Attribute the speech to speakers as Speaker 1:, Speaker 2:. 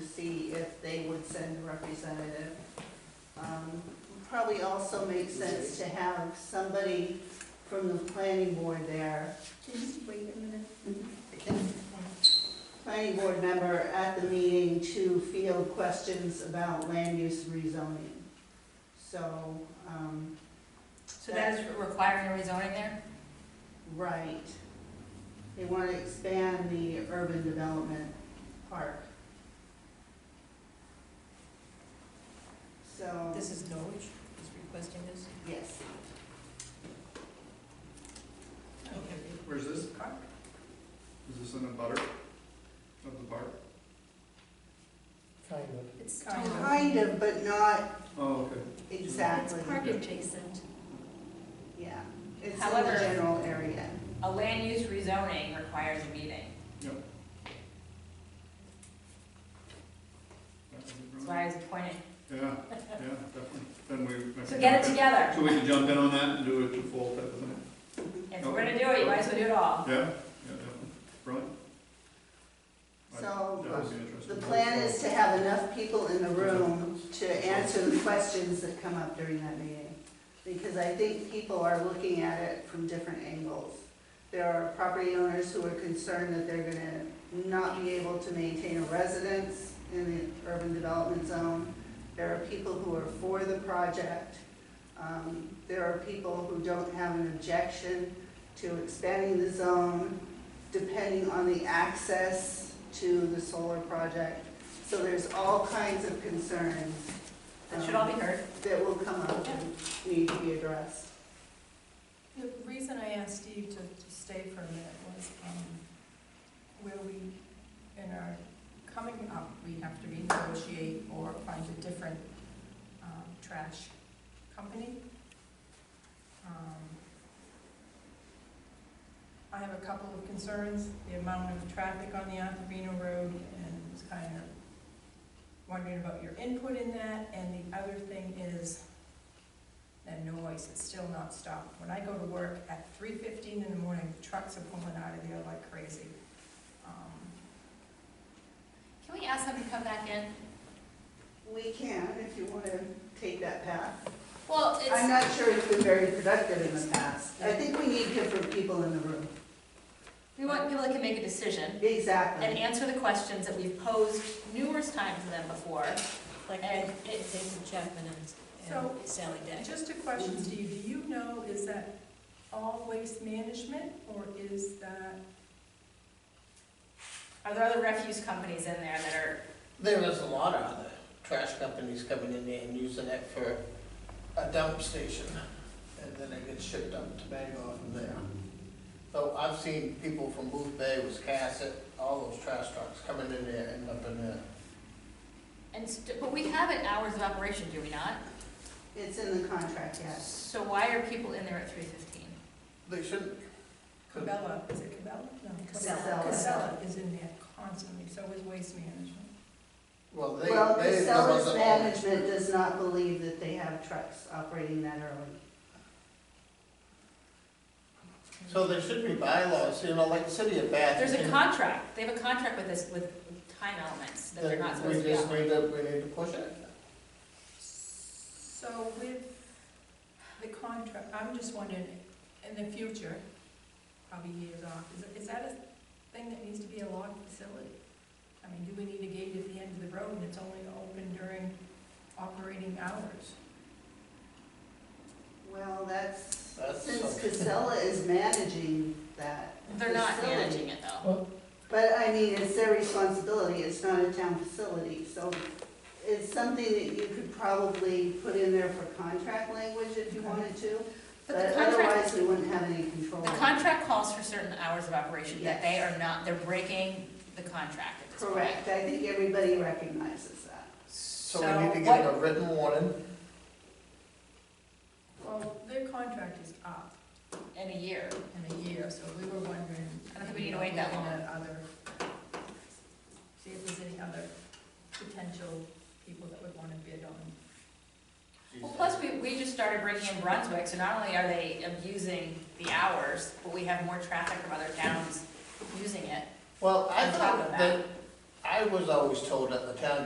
Speaker 1: see if they would send a representative. Um, Probably also makes sense to have somebody from the planning board there, Mm-hmm.
Speaker 2: Wait a minute.
Speaker 1: planning board member at the meeting to field questions about land use rezoning. So, um,
Speaker 3: So that is requiring a rezoning there?
Speaker 1: right, they want to expand the urban development park. So,
Speaker 3: This is Norwich is requesting this?
Speaker 1: yes.
Speaker 4: Where's this? Is this in a butter of the bark?
Speaker 5: Kind of.
Speaker 2: It's
Speaker 3: Kind
Speaker 2: totally-
Speaker 1: Kind of, but not
Speaker 4: Oh, okay.
Speaker 1: exactly,
Speaker 2: It's park adjacent.
Speaker 1: yeah. It's in the
Speaker 3: However-
Speaker 1: general area.
Speaker 3: A land use rezoning requires a meeting.
Speaker 4: That was
Speaker 3: That's
Speaker 4: it, right?
Speaker 3: why I was pointing.
Speaker 4: Yeah, yeah, definitely. Then we.
Speaker 3: So get it together.
Speaker 4: So we can jump in on that and do it to full type of thing.
Speaker 3: If we're gonna do it, you might as well do it all.
Speaker 4: Yeah, yeah, definitely. Brilliant. I-
Speaker 1: So,
Speaker 4: That would be interesting.
Speaker 1: The plan is to have enough people in the room to answer the questions that come up during that meeting. Because I think people are looking at it from different angles. There are property owners who are concerned that they're gonna not be able to maintain a residence in the urban development zone. There are people who are for the project. Um, There are people who don't have an objection to expanding the zone, depending on the access to the solar project. So there's all kinds of concerns
Speaker 3: That should all be heard.
Speaker 1: um, that will come up and need to be addressed.
Speaker 6: The reason I asked Steve to, to stay for a minute was, um, where we, in our coming up, we have to renegotiate or find a different, um, trash company. Um, I have a couple of concerns, the amount of traffic on the Athabino Road, and was kind of wondering about your input in that, and the other thing is, that noise is still not stopped. When I go to work at three fifteen in the morning, trucks are pulling out of there like crazy. Um,
Speaker 3: Can we ask them to come back in?
Speaker 1: We can, if you want to take that path.
Speaker 3: Well,
Speaker 1: I'm
Speaker 3: it's,
Speaker 1: not sure it's been very productive in the past. I think we need different people in the room.
Speaker 3: we want people that can make a decision and
Speaker 1: Exactly.
Speaker 3: answer the questions that we've posed numerous times to them before.
Speaker 7: Like
Speaker 3: And
Speaker 7: David David Chapman and
Speaker 6: So-
Speaker 7: and Sally Day.
Speaker 6: Just a question, Steve, do you know, is that all waste management, or is that,
Speaker 3: Are there other refuse companies in there that are,
Speaker 5: There is a lot of other trash companies coming in there and using it for a dump station, and then it gets shipped up to Bangor from there. So I've seen people from Booth Bay, Wiscasset, all those trash trucks coming in there and up in there.
Speaker 3: and, st- but we have it hours of operation, do we not?
Speaker 1: It's in the contract, yes.
Speaker 3: So why are people in there at three fifteen?
Speaker 5: They shouldn't.
Speaker 6: Cabela, is it Cabela? No.
Speaker 1: Casella.
Speaker 6: Casella is in there constantly, so is waste management.
Speaker 5: Well, they, they.
Speaker 1: Well, the
Speaker 5: they're the
Speaker 1: seller's
Speaker 5: owners.
Speaker 1: management does not believe that they have trucks operating that early.
Speaker 5: So there should be bylaws, you know, like the city of Bath.
Speaker 3: There's a
Speaker 5: and-
Speaker 3: contract, they have a contract with this, with time elements that they're not supposed to be
Speaker 5: We
Speaker 3: on.
Speaker 5: just need to, we need to push it.
Speaker 6: So with the contract, I'm just wondering, in the future, probably years off, is, is that a thing that needs to be a locked facility? I mean, do we need a gate at the end of the road and it's only open during operating hours?
Speaker 1: Well, that's,
Speaker 5: That's
Speaker 1: since
Speaker 5: something.
Speaker 1: Casella is managing that.
Speaker 3: They're not
Speaker 1: facility.
Speaker 3: managing it though.
Speaker 1: But I mean, it's their responsibility, it's not a town facility, so it's something that you could probably put in there for contract language if you wanted to,
Speaker 3: But the
Speaker 1: but
Speaker 3: contract,
Speaker 1: otherwise, we wouldn't have any control.
Speaker 3: the contract calls for certain hours of operation, that they
Speaker 1: Yes.
Speaker 3: are not, they're breaking the contract at this point.
Speaker 1: Correct, I think everybody recognizes that.
Speaker 5: So we need to give it a written warning.
Speaker 6: Well, their contract is up
Speaker 3: what- In a year,
Speaker 6: in a year, so we were wondering.
Speaker 3: I don't think we need to wait that long.
Speaker 6: looking at Other, see if there's any other potential people that would wanna bid on
Speaker 3: well, plus we, we just started breaking in Brunswick, so not only are they abusing the hours, but we have more traffic from other towns using it.
Speaker 5: Well, I
Speaker 3: On top of
Speaker 5: thought
Speaker 3: that.
Speaker 5: that, I I was always told at the town